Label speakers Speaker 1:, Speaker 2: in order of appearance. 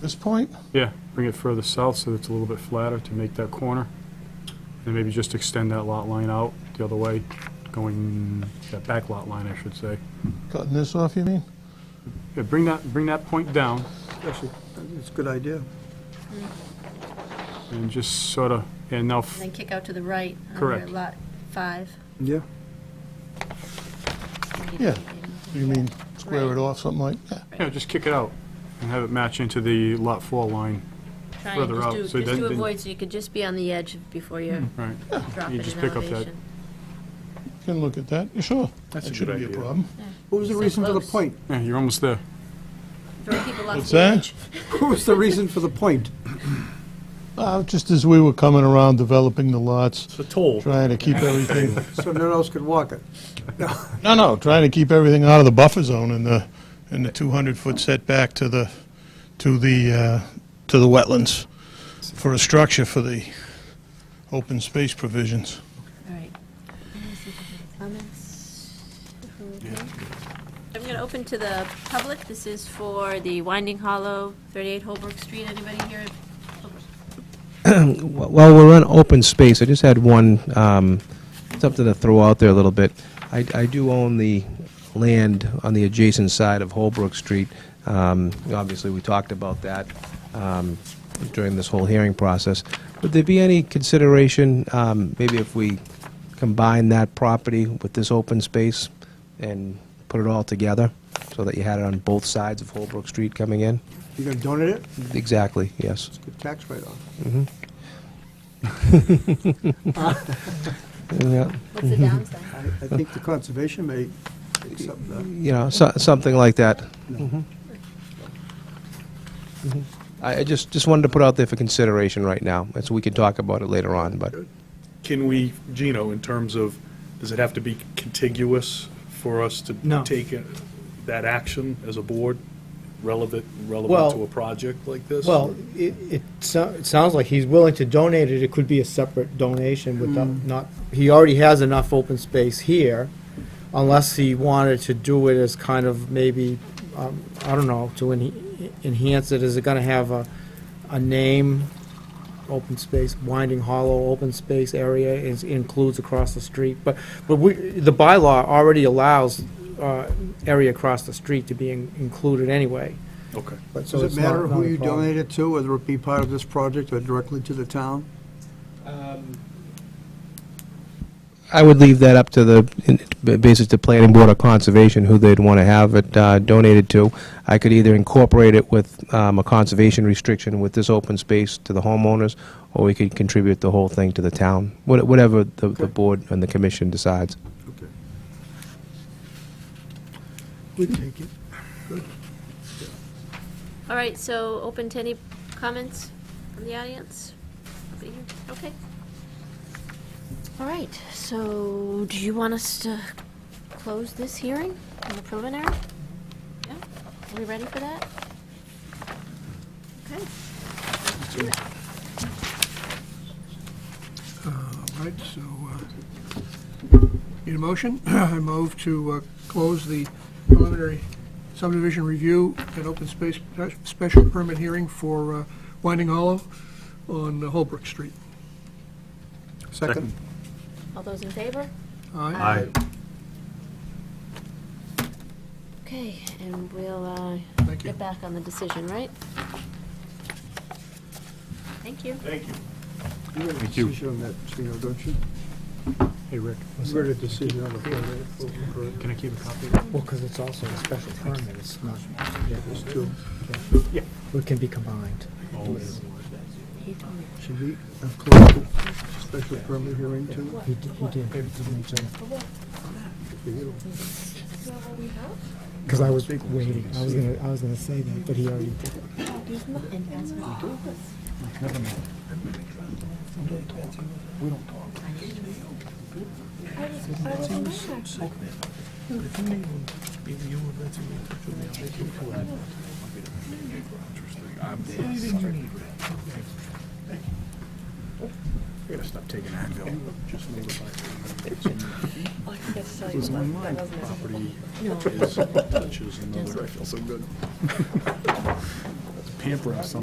Speaker 1: This point?
Speaker 2: Yeah, bring it further south so it's a little bit flatter to make that corner. And maybe just extend that lot line out the other way, going, that back lot line, I should say.
Speaker 1: Cutting this off, you mean?
Speaker 2: Yeah, bring that, bring that point down
Speaker 3: Actually, it's a good idea.
Speaker 2: and just sort of, and now, f-
Speaker 4: And then kick out to the right. under
Speaker 2: Correct.
Speaker 4: Lot five.
Speaker 3: Yeah.
Speaker 1: Yeah. You mean square it off, something like that?
Speaker 2: yeah, just kick it out and have it match into the lot four line.
Speaker 4: Try and
Speaker 2: further
Speaker 4: just
Speaker 2: out,
Speaker 4: do,
Speaker 2: so
Speaker 4: just
Speaker 2: then-
Speaker 4: do
Speaker 2: then-
Speaker 4: avoid, so you could just be on the edge before you're
Speaker 2: Right.
Speaker 4: dropping
Speaker 2: just
Speaker 4: an
Speaker 2: pick up that-
Speaker 4: elevation.
Speaker 1: You Can look at that, Yeah, sure.
Speaker 2: That's
Speaker 1: That
Speaker 2: a good
Speaker 1: shouldn't be a
Speaker 2: idea.
Speaker 1: problem.
Speaker 3: What was the
Speaker 4: So
Speaker 3: reason for the
Speaker 4: close.
Speaker 3: point?
Speaker 2: Yeah, you're almost there.
Speaker 4: Throw people off
Speaker 1: What's
Speaker 4: the
Speaker 1: that?
Speaker 4: edge.
Speaker 3: What was the reason for the point?
Speaker 1: Uh, Just as we were coming around developing the lots,
Speaker 5: It's a toll.
Speaker 1: trying to keep everything,
Speaker 3: So no one else could walk it.
Speaker 1: no, no, trying to keep everything out of the buffer zone and the, and the 200-foot setback to the, to the, uh, to the wetlands for a structure for the open space provisions.
Speaker 4: All right. Let me see if there's any Comments? Okay. I'm going to open to the public. This is for the Winding Hollow, 38 Holbrook Street. Anybody here? Holbrook.
Speaker 6: Well, we're on open space. I just had one, um, something to throw out there a little bit. I, I do own the land on the adjacent side of Holbrook Street. Um, Obviously, we talked about that um, during this whole hearing process. Would there be any consideration, um, maybe if we combine that property with this open space and put it all together, so that you had it on both sides of Holbrook Street coming in?
Speaker 3: You gonna donate it?
Speaker 6: Exactly, yes.
Speaker 3: It's a good tax write-off.
Speaker 6: Yeah.
Speaker 4: What's the
Speaker 1: Mm-hmm.
Speaker 4: downside?
Speaker 3: I, I think the conservation may uh, accept that.
Speaker 6: you know, so, something like that.
Speaker 3: No.
Speaker 6: Mhm. Mhm. I, I just, just wanted to put out there for consideration right now, and so we can talk about it later on, but
Speaker 5: Can we, Gino, in terms of, does it have to be contiguous for us to
Speaker 3: No.
Speaker 5: take it- that action as a board relevant, relevant
Speaker 7: Well-
Speaker 5: to a project like this?
Speaker 7: Well, it, it, so- it sounds like he's willing to donate it, it could be a separate donation without,
Speaker 3: Hmm.
Speaker 7: not, he already has enough open space here, unless he wanted to do it as kind of maybe, um, I don't know, to en- enhance it, is it gonna have a, a name, open space, Winding Hollow Open Space Area is, includes across the street, but, but we, the bylaw already allows, uh, area across the street to be in- included anyway.
Speaker 5: Okay.
Speaker 7: But so
Speaker 3: Does it
Speaker 7: it's not-
Speaker 3: matter
Speaker 7: not
Speaker 3: who
Speaker 7: a
Speaker 3: you
Speaker 7: problem.
Speaker 3: donate it to, whether it be part of this project or directly to the town?
Speaker 6: I would leave that up to the, in- b- basis the planning board or conservation, who they'd want to have it uh, donated to. I could either incorporate it with um, a conservation restriction with this open space to the homeowners, or we could contribute the whole thing to the town, What- whatever the, the board and the commission decides.
Speaker 3: Okay. We take it.
Speaker 4: All right, so open to any comments from the audience? Nobody here? Okay. All right, so do you want us to close this hearing on the preliminary? Yeah, are we ready for that? Okay.
Speaker 8: All right, so, uh, need a motion? I move to uh, close the preliminary subdivision review and open space special permit hearing for uh, Winding Hollow on Holbrook Street.
Speaker 3: Second?
Speaker 4: All those in favor?
Speaker 8: Aye.
Speaker 4: Okay, and we'll uh,
Speaker 8: Thank you.
Speaker 4: get back on the decision, right? Thank you.
Speaker 3: You have a
Speaker 2: Thank you.
Speaker 3: decision on that, Gino, don't you?
Speaker 2: Hey, Rick,
Speaker 3: You got a decision on the permit. Correct.
Speaker 2: can I keep a copy?
Speaker 7: Well, because it's also a special permit, it's not,
Speaker 3: There's two.
Speaker 7: it can be combined.
Speaker 4: He told me.
Speaker 3: Should we have closed the special permit hearing too?
Speaker 7: He did, he did. Because I was waiting, I was gonna, I was gonna say that, but he already did.
Speaker 5: Property touches another. I feel so good. hampering something.